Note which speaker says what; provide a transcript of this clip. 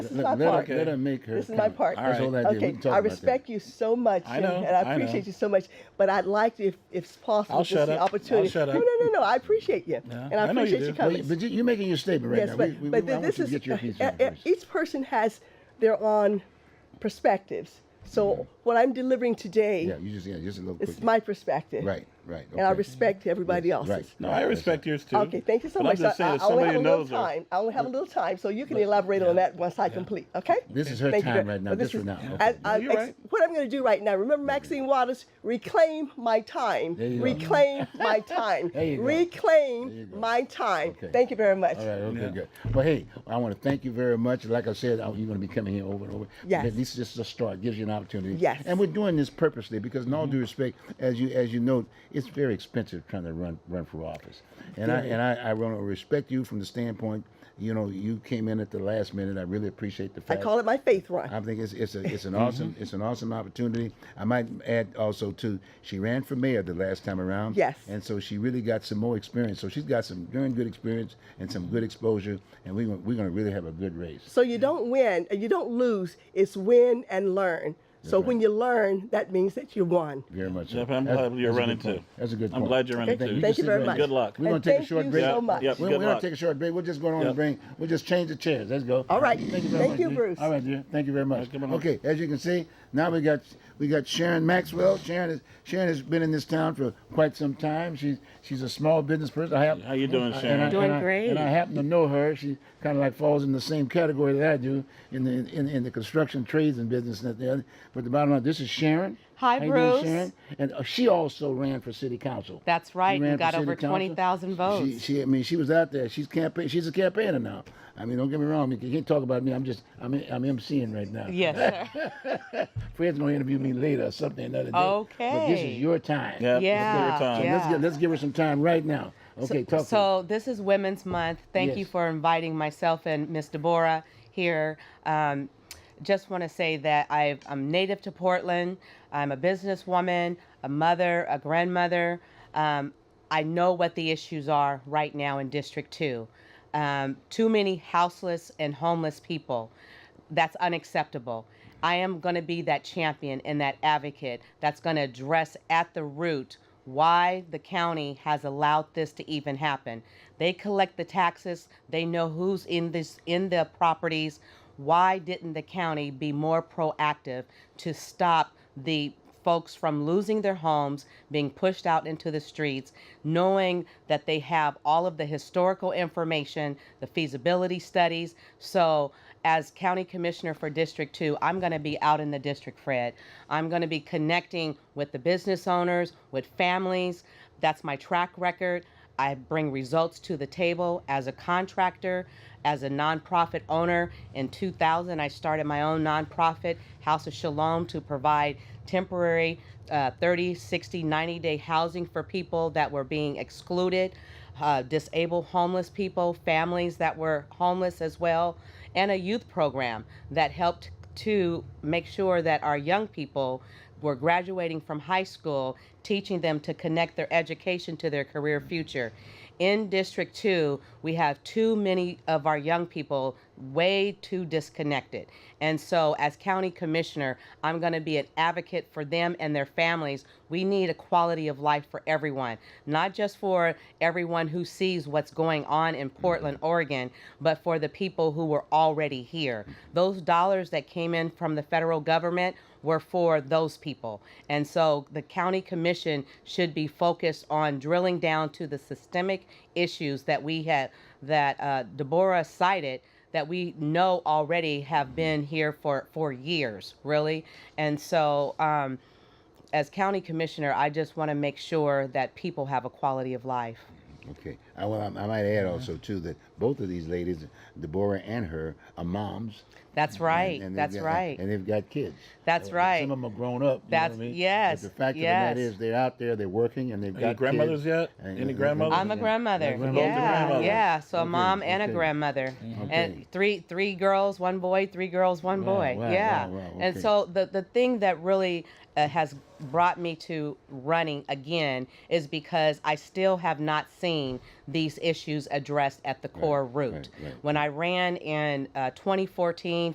Speaker 1: This is
Speaker 2: Let-
Speaker 1: my
Speaker 2: let her-
Speaker 1: part.
Speaker 2: let her make her
Speaker 1: This is my
Speaker 2: comment.
Speaker 1: part.
Speaker 2: All That's right. all I did. We
Speaker 1: Okay,
Speaker 2: can talk
Speaker 1: I
Speaker 2: about that.
Speaker 1: respect you so much.
Speaker 2: I
Speaker 1: and-
Speaker 2: know,
Speaker 1: And
Speaker 2: I know.
Speaker 1: I appreciate you so much, but I'd like to, if, if it's possible,
Speaker 2: I'll
Speaker 1: just
Speaker 2: shut
Speaker 1: the
Speaker 2: up. I'll
Speaker 1: opportunity.
Speaker 2: shut up.
Speaker 1: No, no, no, no, I appreciate you.
Speaker 2: Yeah,
Speaker 1: And I
Speaker 2: I know you
Speaker 1: appreciate
Speaker 2: do.
Speaker 1: your
Speaker 2: Well,
Speaker 1: comments.
Speaker 2: But you- you're making your statement right
Speaker 1: Yes,
Speaker 2: now.
Speaker 1: but,
Speaker 2: We- we-
Speaker 1: but
Speaker 2: we- I
Speaker 1: this
Speaker 2: want you
Speaker 1: is
Speaker 2: to get your piece
Speaker 1: e-
Speaker 2: in
Speaker 1: e-
Speaker 2: first.
Speaker 1: each person has their own perspectives. So what I'm delivering today
Speaker 2: Yeah, you just, yeah, just a little
Speaker 1: is
Speaker 2: quick.
Speaker 1: my perspective.
Speaker 2: Right, right.
Speaker 1: And I
Speaker 2: okay.
Speaker 1: respect everybody
Speaker 2: Yes,
Speaker 1: else's.
Speaker 2: right.
Speaker 3: No, I respect yours too.
Speaker 1: Okay, thank you so
Speaker 3: But
Speaker 1: much.
Speaker 3: I'm just
Speaker 1: So
Speaker 3: saying,
Speaker 1: I,
Speaker 3: if
Speaker 1: I only
Speaker 3: somebody
Speaker 1: have a little
Speaker 3: knows her-
Speaker 1: time. I only have a little time, so you can elaborate on that once I complete. Okay.
Speaker 2: This is her
Speaker 1: Thank you
Speaker 2: time
Speaker 1: very-
Speaker 2: right now,
Speaker 1: but
Speaker 2: just for now. Okay.
Speaker 1: as- I-
Speaker 3: No, you're
Speaker 1: ex-
Speaker 3: right.
Speaker 1: What I'm going to do right now. Remember Maxine Waters. Reclaim my time.
Speaker 2: There you go.
Speaker 1: Reclaim my time.
Speaker 2: There you go.
Speaker 1: Reclaim
Speaker 2: There you go.
Speaker 1: my time.
Speaker 2: Okay.
Speaker 1: Thank you very much.
Speaker 2: All right, okay,
Speaker 3: Yeah.
Speaker 2: good. Well, hey, I want to thank you very much. Like I said, I- you're going to be coming here over and over.
Speaker 1: Yes.
Speaker 2: But This is just a start, gives you an opportunity.
Speaker 1: Yes.
Speaker 2: And we're doing this purposely because, in all due respect, as you as you know, it's very expensive trying to run run for office. And I and I, I want to respect you from the standpoint, you know, you came in at the last minute. I really appreciate the
Speaker 1: I
Speaker 2: fact.
Speaker 1: call it my faith run.
Speaker 2: I think it's it's a, it's
Speaker 1: Mm-hmm.
Speaker 2: an awesome it's an awesome opportunity. I might add also too, she ran for mayor the last time around.
Speaker 1: Yes.
Speaker 2: And so she really got some more experience. So she's got some darn good experience and some good exposure, and we gon- we're gonna really have a good race.
Speaker 1: So you don't win, uh, you don't lose. It's win and learn. So when you learn, that means that you won.
Speaker 2: Very much. so.
Speaker 3: Yep, I'm
Speaker 2: That-
Speaker 3: glad
Speaker 2: that's
Speaker 3: you're
Speaker 2: a
Speaker 3: running
Speaker 2: good point.
Speaker 3: too.
Speaker 2: That's a good
Speaker 3: I'm
Speaker 2: point.
Speaker 3: glad you're running
Speaker 1: Okay,
Speaker 3: too.
Speaker 1: thank you very much.
Speaker 3: Good luck.
Speaker 2: We're gonna
Speaker 1: And
Speaker 2: take a
Speaker 1: thank
Speaker 2: short
Speaker 1: you
Speaker 2: break.
Speaker 1: so
Speaker 3: Yeah,
Speaker 1: much.
Speaker 3: yep.
Speaker 2: We're,
Speaker 3: Good
Speaker 2: we're gonna
Speaker 3: luck.
Speaker 2: take a short break. We're just going on and
Speaker 3: Yep.
Speaker 2: bring. We'll just change the chairs. Let's go.
Speaker 1: All right.
Speaker 2: Thank you very
Speaker 1: Thank
Speaker 2: much.
Speaker 1: you,
Speaker 2: dear.
Speaker 1: Bruce.
Speaker 2: All right, dear. Thank you very much.
Speaker 3: Alright, come on up.
Speaker 2: Okay, as you can see, now we got we got Sharon Maxwell. Sharon is Sharon has been in this town for quite some time. She's she's a small business person. I have,
Speaker 3: How you doing,
Speaker 2: I- and
Speaker 3: Sharon?
Speaker 2: I-
Speaker 4: Doing
Speaker 2: and I-
Speaker 4: great.
Speaker 2: And I happen to know her. She kind of like falls in the same category that I do in the in, in the construction trades and business and the other. But the bottom line, this is Sharon.
Speaker 4: Hi,
Speaker 2: How you doing,
Speaker 4: Bruce.
Speaker 2: Sharon? And uh, she also ran for city council.
Speaker 4: That's right,
Speaker 2: She
Speaker 4: and
Speaker 2: ran
Speaker 4: got
Speaker 2: for city
Speaker 4: over
Speaker 2: council.
Speaker 4: 20,000 votes.
Speaker 2: She, she, I mean, she was out there. She's campaign. She's a campaigner now. I mean, don't get me wrong. You can't talk about me. I'm just, I'm, I'm emceeing right now.
Speaker 4: Yes, sir.
Speaker 2: Fred's gonna interview me later or something another day. But this
Speaker 4: Okay.
Speaker 2: is your time.
Speaker 3: Yeah.
Speaker 2: So
Speaker 4: Yeah,
Speaker 3: time.
Speaker 4: yeah.
Speaker 2: let's give, let's give her some time right now. Okay, talk to
Speaker 4: So this is Women's Month. Thank you
Speaker 2: Yes.
Speaker 4: for inviting myself and Miss Deborah here. Um, just want to say that i I'm native to Portland. I'm a businesswoman, a mother, a grandmother. Um, I know what the issues are right now in District Two. Um, too many houseless and homeless people. That's unacceptable. I am going to be that champion and that advocate that's going to address at the root why the county has allowed this to even happen. They collect the taxes, they know who's in this in the properties. Why didn't the county be more proactive to stop the folks from losing their homes, being pushed out into the streets, knowing that they have all of the historical information, the feasibility studies. So, as county commissioner for District 2, I'm going to be out in the district, Fred. I'm going to be connecting with the business owners, with families. That's my track record. I bring results to the table as a contractor, as a nonprofit owner. In 2000, I started my own nonprofit, House of Shalom, to provide temporary uh, 30, 60, 90 day housing for people that were being excluded, uh, disabled homeless people, families that were homeless as well, and a youth program that helped to make sure that our young people were graduating from high school, teaching them to connect their education to their career future. In District 2, we have too many of our young people way too disconnected. And so, as county commissioner, I'm going to be an advocate for them and their families. We need a quality of life for everyone, not just for everyone who sees what's going on in Portland, Oregon, but for the people who were already here. Those dollars that came in from the federal government were for those people. And so the county commission should be focused on drilling down to the systemic issues that we had, that uh, Deborah cited, that we know already have been here for, for years, really. And so, um, as county commissioner, I just want to make sure that people have a quality of life.
Speaker 2: you. Okay. I, well, I, I might add also too that both of these ladies, Deborah and her, are moms.
Speaker 4: That's right.
Speaker 2: And- and they've
Speaker 4: That's
Speaker 2: got-
Speaker 4: right.
Speaker 2: And they've got kids.
Speaker 4: That's
Speaker 2: Uh,
Speaker 4: right.
Speaker 2: Some of them are grown up. You
Speaker 4: That's-
Speaker 2: know what I mean?
Speaker 4: yes,
Speaker 2: But the fact of
Speaker 4: yes.
Speaker 2: the matter is, they're out there, they're working, and they've
Speaker 3: Any
Speaker 2: got
Speaker 3: grandmothers
Speaker 2: kids.
Speaker 3: yet?
Speaker 2: And-
Speaker 3: Any
Speaker 2: and-
Speaker 3: grandmothers?
Speaker 4: I'm a grandmother.
Speaker 2: grandmother.
Speaker 4: Yeah,
Speaker 3: Grandmother.
Speaker 4: yeah. So a
Speaker 2: Okay,
Speaker 4: mom and
Speaker 2: okay.
Speaker 4: a grandmother,
Speaker 2: Okay.
Speaker 4: and three three girls, one boy, three girls, one
Speaker 2: Wow,
Speaker 4: boy.
Speaker 2: wow,
Speaker 4: yeah.
Speaker 2: wow, wow, okay.
Speaker 4: And so the the thing that really uh, has brought me to running again is because I still have not seen these issues addressed at the core root.
Speaker 2: right, right.
Speaker 4: When I ran in uh, 2014